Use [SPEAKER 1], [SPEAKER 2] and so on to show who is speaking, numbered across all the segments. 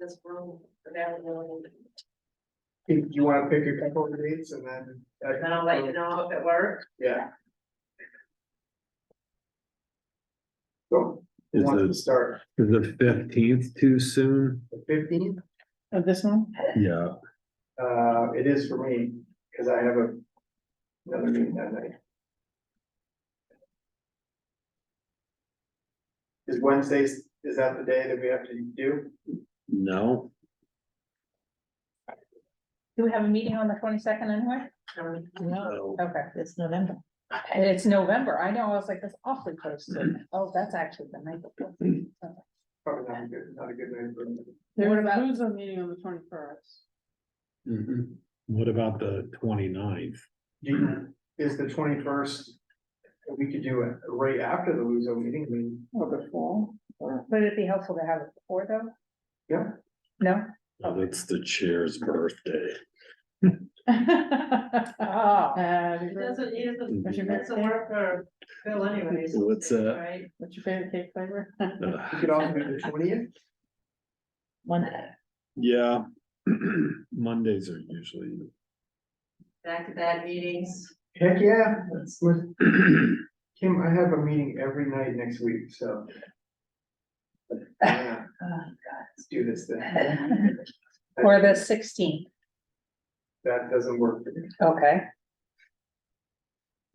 [SPEAKER 1] this room available,
[SPEAKER 2] Do you wanna pick a couple of dates and then?
[SPEAKER 1] and then I'll let you know if it works.
[SPEAKER 2] Yeah. So, who
[SPEAKER 3] Is
[SPEAKER 2] wants to
[SPEAKER 3] the-
[SPEAKER 2] start,
[SPEAKER 3] Is the fifteenth too soon?
[SPEAKER 2] the fifteenth,
[SPEAKER 4] Of this one?
[SPEAKER 3] Yeah.
[SPEAKER 2] uh, it is for me, cause I have a. Another meeting that night. Is Wednesday, is that the day that we have to do?
[SPEAKER 3] No,
[SPEAKER 4] Do we have a meeting on the twenty-second anyway?
[SPEAKER 1] Um,
[SPEAKER 3] no,
[SPEAKER 4] Okay,
[SPEAKER 5] It's November.
[SPEAKER 4] and it's November, I know, I was like, that's awfully close to, oh, that's actually the night. before.
[SPEAKER 2] Probably not a good, not a good night for me.
[SPEAKER 4] What about,
[SPEAKER 5] a meeting on the twenty-first.
[SPEAKER 3] Mm-hmm.
[SPEAKER 6] What about the 29th?
[SPEAKER 2] Do
[SPEAKER 4] Mm-hmm.
[SPEAKER 2] you, is the twenty-first, we could do it right after the Luso meeting, I mean,
[SPEAKER 5] Or before, or
[SPEAKER 4] would it be helpful to have it before though?
[SPEAKER 2] yeah,
[SPEAKER 4] No?
[SPEAKER 6] Oh, That's the chair's birthday.
[SPEAKER 4] Oh,
[SPEAKER 5] Ah.
[SPEAKER 1] It
[SPEAKER 5] What's
[SPEAKER 1] doesn't, it doesn't,
[SPEAKER 5] your
[SPEAKER 1] it's a
[SPEAKER 5] favorite,
[SPEAKER 1] work for Phil anyways.
[SPEAKER 3] What's that?
[SPEAKER 1] Right,
[SPEAKER 5] what's your favorite cake flavor?
[SPEAKER 2] we
[SPEAKER 3] Ugh,
[SPEAKER 2] could also do the twentieth.
[SPEAKER 5] One,
[SPEAKER 3] yeah. Mondays are usually,
[SPEAKER 1] back to back meetings,
[SPEAKER 2] Heck, yeah, that's with, Kim, I have a meeting every night next week, so. Yeah, Let's do this then.
[SPEAKER 4] or Uh, the sixteenth,
[SPEAKER 2] That doesn't work for me.
[SPEAKER 4] okay.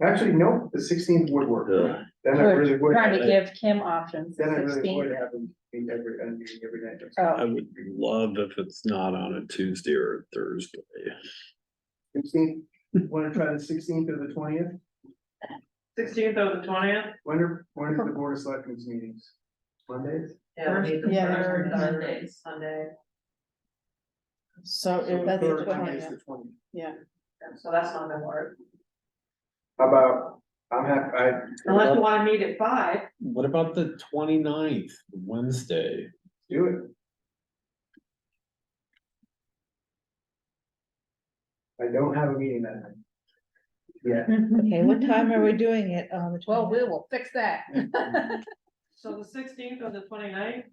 [SPEAKER 2] Actually, no, the sixteenth would work.
[SPEAKER 3] Ugh.
[SPEAKER 2] Then I
[SPEAKER 4] We're
[SPEAKER 2] really would.
[SPEAKER 4] Trying to
[SPEAKER 2] have-
[SPEAKER 4] give Kim options,
[SPEAKER 2] Then I really would
[SPEAKER 4] sixteen,
[SPEAKER 2] have a meeting every, a meeting every night. next week.
[SPEAKER 4] oh,
[SPEAKER 3] I would love if it's not on a Tuesday or a Thursday.
[SPEAKER 2] Sixteenth, wanna try the sixteenth or the twentieth?
[SPEAKER 1] sixteenth or the twentieth?
[SPEAKER 2] When are, when is the board of selectmen's meetings? Mondays?
[SPEAKER 1] Yeah, we need the
[SPEAKER 5] Yeah, there's
[SPEAKER 1] third
[SPEAKER 5] one.
[SPEAKER 1] Sunday, Sunday,
[SPEAKER 5] so
[SPEAKER 2] So
[SPEAKER 5] if that's the
[SPEAKER 2] third Monday is
[SPEAKER 5] twentieth,
[SPEAKER 2] the 20th.
[SPEAKER 5] yeah.
[SPEAKER 1] so that's not gonna work,
[SPEAKER 2] How About, I'm happy, I,
[SPEAKER 1] unless you wanna meet at five.
[SPEAKER 3] What about the 29th, Wednesday?
[SPEAKER 2] do it. I don't have a meeting that night. Yeah,
[SPEAKER 5] Okay, what time are we doing it on the
[SPEAKER 4] well, we
[SPEAKER 5] twentieth?
[SPEAKER 4] will fix that.
[SPEAKER 1] So the sixteenth or the 29th?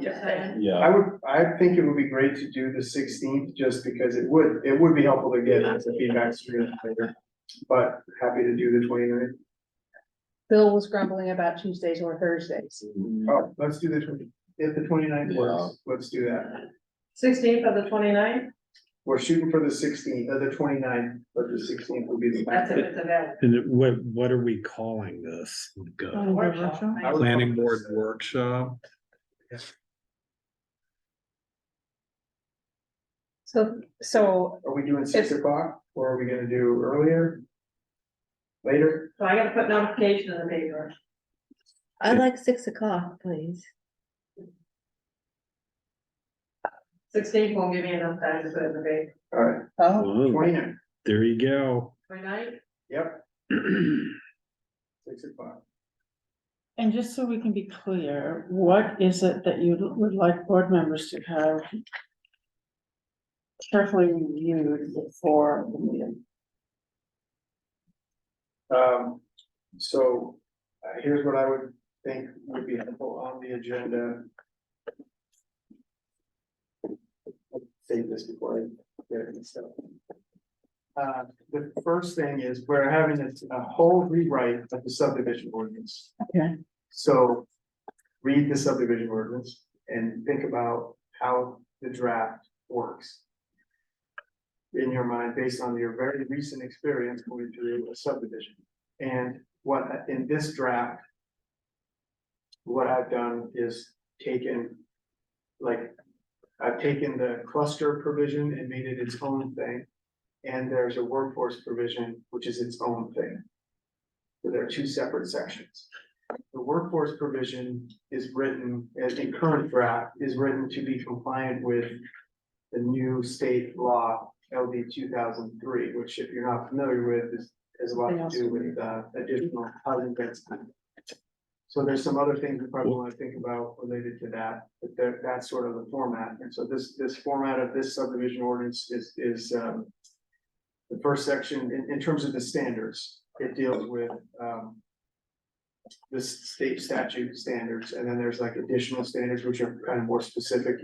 [SPEAKER 2] Yeah. I
[SPEAKER 3] Yeah,
[SPEAKER 2] would, I think it would be great to do the sixteenth, just because it would, it would be helpful to get the feedback sooner than later. But happy to do the 29th.
[SPEAKER 4] Bill was grumbling about Tuesdays or Thursdays.
[SPEAKER 3] Mm-hmm.
[SPEAKER 2] Oh, let's do the twenty, if the 29th works, let's do that.
[SPEAKER 1] Sixteenth or the 29th?
[SPEAKER 2] We're shooting for the sixteenth, or the 29th, but the sixteenth would be the.
[SPEAKER 1] that's if it's available.
[SPEAKER 6] And it- what, what are we calling this? Like, uh,
[SPEAKER 5] Oh,
[SPEAKER 1] Workshop,
[SPEAKER 5] workshop?
[SPEAKER 1] right?
[SPEAKER 2] I would-
[SPEAKER 6] Planning board workshop?
[SPEAKER 4] So, so,
[SPEAKER 2] Are we doing six
[SPEAKER 4] If-
[SPEAKER 2] o'clock, or are we gonna do earlier? Later,
[SPEAKER 1] So I gotta put notification in the paper.
[SPEAKER 5] I like six o'clock, please.
[SPEAKER 1] Sixteenth won't give me enough time to put in the paper.
[SPEAKER 2] alright,
[SPEAKER 4] oh,
[SPEAKER 6] Whoa,
[SPEAKER 2] twenty-nine,
[SPEAKER 6] There you go.
[SPEAKER 1] 29th.
[SPEAKER 2] yep, six o'clock.
[SPEAKER 5] And just so we can be clear, what is it that you would like board members to have carefully reviewed before the meeting?
[SPEAKER 2] Um, so, uh, here's what I would think would be helpful on the agenda. Save this before I get it stuff. Uh, the first thing is we're having a, a whole rewrite of the subdivision ordinance.
[SPEAKER 5] Okay.
[SPEAKER 2] So, read the subdivision ordinance and think about how the draft works. In your mind, based on your very recent experience going through a subdivision. And what, in this draft. What I've done is taken, like, I've taken the cluster provision and made it its own thing. And there's a workforce provision, which is its own thing. So there are two separate sections. The workforce provision is written, as in current draft, is written to be compliant with. The new state law LD two thousand three, which if you're not familiar with, is, has a lot to do with, uh, additional housing density. So there's some other things we probably wanna think about related to that, but that, that's sort of the format, and so this, this format of this subdivision ordinance is, is, um. The first section, in, in terms of the standards, it deals with, um this state statute standards, and then there's like additional standards which are kind of more specific